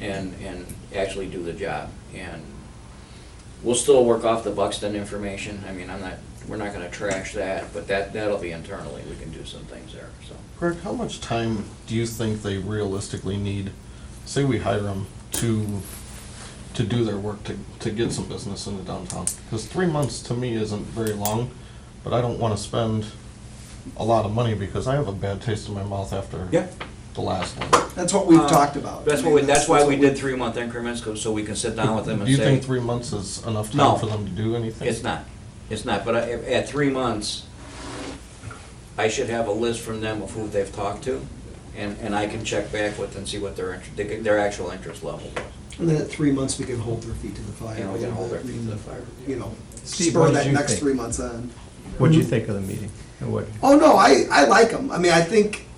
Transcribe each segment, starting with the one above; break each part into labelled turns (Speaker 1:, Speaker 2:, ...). Speaker 1: and, and actually do the job. And we'll still work off the Buxton information. I mean, I'm not, we're not gonna trash that, but that, that'll be internally. We can do some things there, so.
Speaker 2: Greg, how much time do you think they realistically need? Say we hire them to, to do their work, to, to get some business into downtown. Because three months to me isn't very long, but I don't want to spend a lot of money because I have a bad taste in my mouth after
Speaker 1: Yeah.
Speaker 2: the last one.
Speaker 3: That's what we've
Speaker 1: Uh,
Speaker 3: talked about.
Speaker 1: That's
Speaker 3: I
Speaker 1: what,
Speaker 3: mean,
Speaker 1: we- that's why we
Speaker 3: what
Speaker 1: did three-month increments, 'cause- so we can sit down with them and
Speaker 2: Do
Speaker 1: say.
Speaker 2: you think three months is enough
Speaker 1: No.
Speaker 2: time for them to do anything?
Speaker 1: It's not, it's not, but I- at three months, I should have a list from them of who they've talked to, and, and I can check back with and see what their, inter- their actual interest level was.
Speaker 3: And then at three months, we can hold their feet to the fire.
Speaker 1: Yeah, we can hold their
Speaker 3: We
Speaker 1: feet to the fire.
Speaker 3: You know,
Speaker 4: Steve,
Speaker 3: spur
Speaker 4: what did
Speaker 3: that
Speaker 4: you
Speaker 3: next
Speaker 4: think?
Speaker 3: three months on.
Speaker 4: What'd you think of the meeting? And what,
Speaker 3: Oh, no, I, I like them. I mean, I think,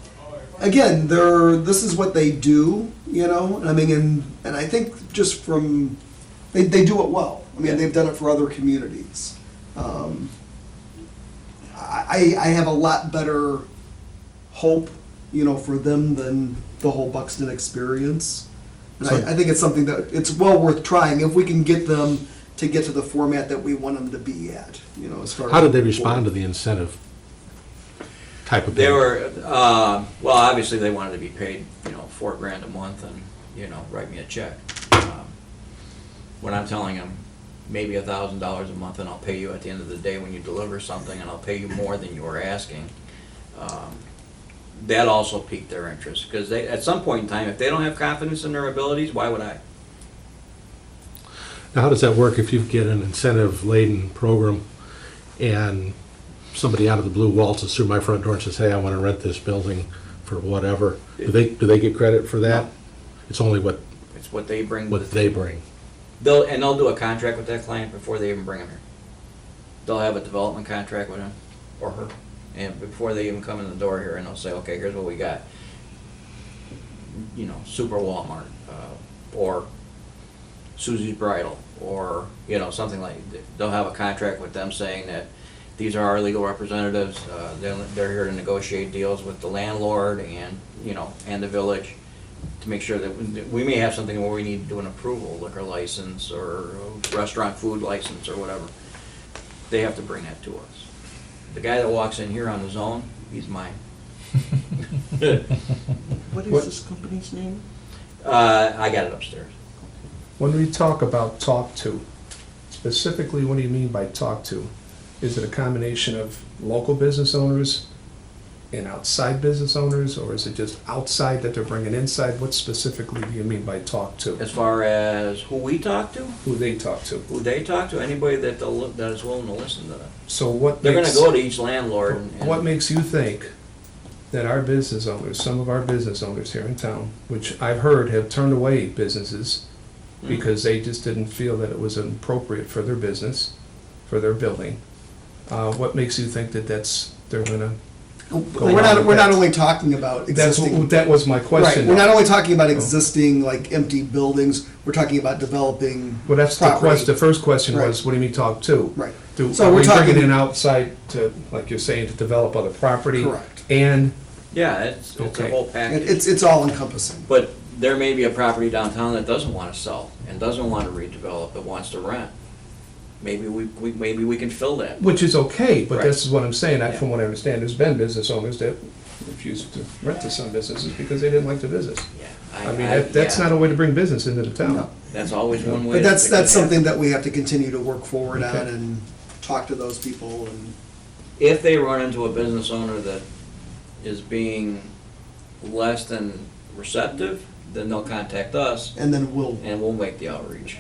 Speaker 3: again, they're, this is what they do, you know? I mean, and, and I think just from, they, they do it well. I mean, they've done it for other communities. Um, I, I I have a lot better hope, you know, for them than the whole Buxton experience. And
Speaker 4: So-
Speaker 3: I, I think it's something that, it's well worth trying if we can get them to get to the format that we want them to be at, you know, as far as.
Speaker 5: How did they respond to the incentive type of?
Speaker 1: They
Speaker 5: bill?
Speaker 1: were, uh, well, obviously, they wanted to be paid, you know, four grand a month and, you know, write me a check. Um, When I'm telling them, maybe a thousand dollars a month, and I'll pay you at the end of the day when you deliver something, and I'll pay you more than you were asking, um, that also piqued their interest, because they, at some point in time, if they don't have confidence in their abilities, why would I?
Speaker 5: Now, how does that work if you get an incentive-laden program and somebody out of the blue waltzes through my front door and says, hey, I want to rent this building for whatever? Do they, do they get credit for that? It's only what,
Speaker 1: It's what they bring. to the
Speaker 5: what they bring.
Speaker 1: They'll, and they'll do a contract with that client before they even bring him here. They'll have a development contract with him or her, and before they even come in the door here, and they'll say, okay, here's what we got. You know, Super Walmart, uh, or Susie's Bridal, or, you know, something like, they'll have a contract with them saying that these are our legal representatives, uh, they're, they're here to negotiate deals with the landlord and, you know, and the village to make sure that, we- we may have something where we need to do an approval, liquor license or restaurant food license or whatever. They have to bring that to us. The guy that walks in here on his own, he's mine.
Speaker 6: What
Speaker 4: What-
Speaker 6: is this company's name?
Speaker 1: Uh, I got it upstairs.
Speaker 4: when we talk about talk to, specifically, what do you mean by talk to? Is it a combination of local business owners and outside business owners, or is it just outside that they're bringing inside? What specifically do you mean by talk to?
Speaker 1: As far as who we talk to,
Speaker 4: Who they talk to?
Speaker 1: who they talk to, anybody that they'll, that is willing to listen to them.
Speaker 4: So what
Speaker 1: They're gonna
Speaker 4: makes-
Speaker 1: go to each landlord and.
Speaker 4: What makes you think that our business owners, some of our business owners here in town, which I've heard have turned away businesses because they just didn't feel that it was appropriate for their business, for their building, uh, what makes you think that that's, they're gonna,
Speaker 3: Oh, We're not, we're not only talking about
Speaker 4: that's,
Speaker 3: existing.
Speaker 4: what- Oh. that was my
Speaker 3: Right,
Speaker 4: question.
Speaker 3: we're not only talking about existing, like, empty buildings, we're talking about developing.
Speaker 4: Well, that's the
Speaker 3: property.
Speaker 4: question, the first question was,
Speaker 3: Right.
Speaker 4: what do you mean talk to?
Speaker 3: Right.
Speaker 4: Do,
Speaker 3: So
Speaker 4: are
Speaker 3: we're
Speaker 4: we
Speaker 3: talking-
Speaker 4: bringing in outside to, like you're saying, to develop other property?
Speaker 3: Correct.
Speaker 4: And
Speaker 1: Yeah, it's, it's a
Speaker 4: Okay.
Speaker 1: whole
Speaker 3: It-
Speaker 1: package.
Speaker 3: It's, it's all encompassing.
Speaker 1: But there may be a property downtown that doesn't want to sell and doesn't want to redevelop, but wants to rent. Maybe we, we, maybe we can fill that.
Speaker 4: Which is okay, but
Speaker 1: Right.
Speaker 4: this is what I'm saying, I-
Speaker 1: Yeah.
Speaker 4: from what I understand, there's been business owners that refused to rent to some businesses because they didn't like the business.
Speaker 1: Yeah,
Speaker 4: I mean, that, that's
Speaker 1: yeah.
Speaker 4: not a way to bring business into the town.
Speaker 3: No.
Speaker 1: That's always one way.
Speaker 3: But
Speaker 1: to
Speaker 3: that's,
Speaker 1: fix it.
Speaker 3: that's something that we have to continue to work forward on
Speaker 4: Okay.
Speaker 3: and talk to those people and,
Speaker 1: If they run into a business owner that is being less than receptive, then they'll contact us
Speaker 3: and then we'll,
Speaker 1: and we'll make the outreach.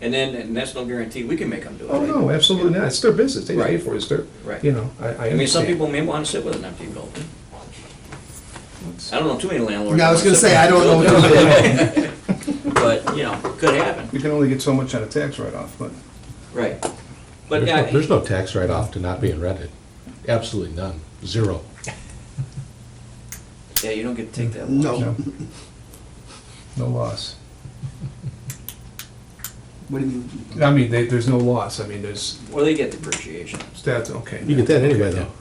Speaker 1: And then, and that's no guarantee, we can make them do it.
Speaker 4: Oh, no, absolutely not, it's their business, they pay
Speaker 1: Right.
Speaker 4: for it, it's their,
Speaker 1: Right.
Speaker 4: you know, I, I
Speaker 1: I mean, some
Speaker 4: understand.
Speaker 1: people may want to sit with an empty building. I don't know too many landlords.
Speaker 3: Yeah, I was
Speaker 1: that
Speaker 3: gonna say, I
Speaker 1: wanna
Speaker 3: don't
Speaker 1: sit with an
Speaker 3: know
Speaker 1: empty building. But, you know, could happen,
Speaker 4: You can only get so much on a tax write-off, but.
Speaker 1: right. But,
Speaker 5: There's no,
Speaker 1: yeah,
Speaker 5: there's no tax write-off to not being rented. Absolutely none, zero.
Speaker 1: yeah, you don't get to take that long.
Speaker 3: no.
Speaker 4: No loss.
Speaker 3: What do you mean?
Speaker 4: I mean, they, there's no loss, I mean, there's,
Speaker 1: Or they get depreciation.
Speaker 4: that's, okay.
Speaker 5: You get that anyway, though.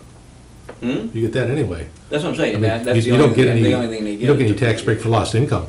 Speaker 1: Hmm?
Speaker 5: You get that anyway.
Speaker 1: That's what I'm
Speaker 5: I
Speaker 1: saying,
Speaker 5: mean,
Speaker 1: that,
Speaker 5: you
Speaker 1: that's the
Speaker 5: you don't
Speaker 1: only,
Speaker 5: get
Speaker 1: thing-
Speaker 5: any,
Speaker 1: the only thing they get.
Speaker 5: you don't get
Speaker 1: is
Speaker 5: any tax break for lost income.